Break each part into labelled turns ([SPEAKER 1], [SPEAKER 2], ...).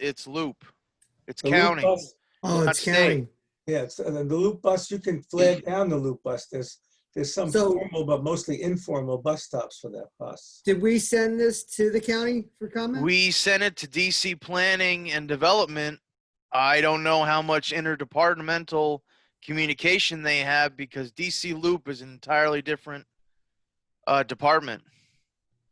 [SPEAKER 1] it's loop. It's
[SPEAKER 2] The loop
[SPEAKER 1] counting.
[SPEAKER 2] bus-
[SPEAKER 3] Oh,
[SPEAKER 1] Not
[SPEAKER 3] it's
[SPEAKER 1] safe.
[SPEAKER 3] counting.
[SPEAKER 2] Yes, and then the loop bus, you can flare down the loop bus. There's, there's some
[SPEAKER 3] So-
[SPEAKER 2] formal, but mostly informal bus stops for that bus.
[SPEAKER 3] Did we send this to the county for comment?
[SPEAKER 1] We sent it to DC Planning and Development. I don't know how much interdepartmental communication they have because DC Loop is an entirely different uh, department.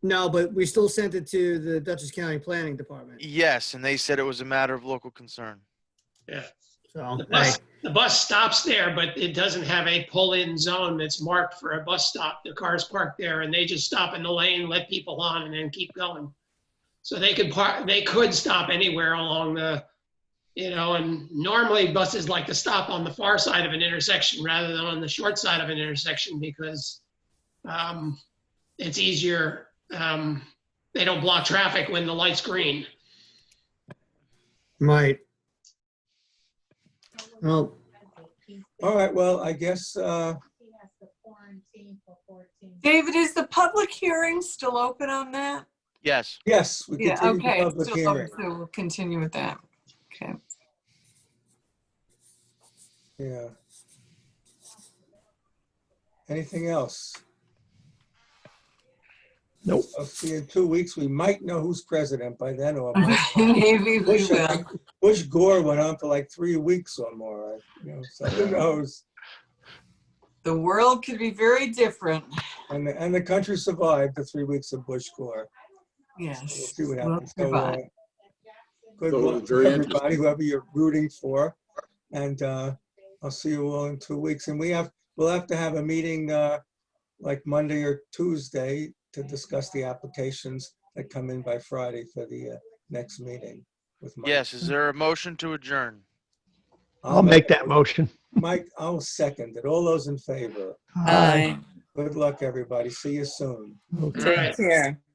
[SPEAKER 3] No, but we still sent it to the Dutchess County Planning Department.
[SPEAKER 1] Yes, and they said it was a matter of local concern.
[SPEAKER 4] Yeah,
[SPEAKER 3] So,
[SPEAKER 4] the bus,
[SPEAKER 3] like,
[SPEAKER 4] the bus stops there, but it doesn't have a pull-in zone that's marked for a bus stop. The cars park there and they just stop in the lane, let people on and then keep going. So they could park, they could stop anywhere along the, you know, and normally buses like to stop on the far side of an intersection rather than on the short side of an intersection because um, it's easier, um, they don't block traffic when the light's green.
[SPEAKER 3] right. Well,
[SPEAKER 2] All right, well, I guess, uh,
[SPEAKER 5] He has to quarantine for 14.
[SPEAKER 6] David, is the public hearing still open on that?
[SPEAKER 1] Yes.
[SPEAKER 2] yes, we
[SPEAKER 6] Yeah,
[SPEAKER 2] continue
[SPEAKER 6] okay.
[SPEAKER 2] the
[SPEAKER 6] it's
[SPEAKER 2] public
[SPEAKER 6] still open,
[SPEAKER 2] hearing.
[SPEAKER 6] So we'll continue with that. Okay.
[SPEAKER 2] Yeah. Anything else?
[SPEAKER 7] Nope.
[SPEAKER 2] I'll see in two weeks. We might know who's president by then or.
[SPEAKER 6] Maybe we
[SPEAKER 2] Bush, I
[SPEAKER 6] will.
[SPEAKER 2] think- Bush Gore went on for like three weeks or more, I- you know, so who knows?
[SPEAKER 6] The world could be very different.
[SPEAKER 2] And, the- and the country survived the three weeks of Bush Gore. We'll
[SPEAKER 6] Yes.
[SPEAKER 2] see what happens. So, uh,
[SPEAKER 6] Goodbye.
[SPEAKER 2] Good
[SPEAKER 7] So,
[SPEAKER 2] luck
[SPEAKER 7] very
[SPEAKER 2] to everybody, whoever you're rooting for. And uh, I'll see you all in two weeks. And we have, we'll have to have a meeting uh, like Monday or Tuesday to discuss the applications that come in by Friday for the uh, next meeting with Mike.
[SPEAKER 1] Yes. Is there a motion to adjourn?
[SPEAKER 7] I'll make that motion.
[SPEAKER 2] Mike, I'll second it. All uh, those in favor. Good luck, everybody. See you soon.
[SPEAKER 7] Okay.
[SPEAKER 4] All right.
[SPEAKER 8] Take care.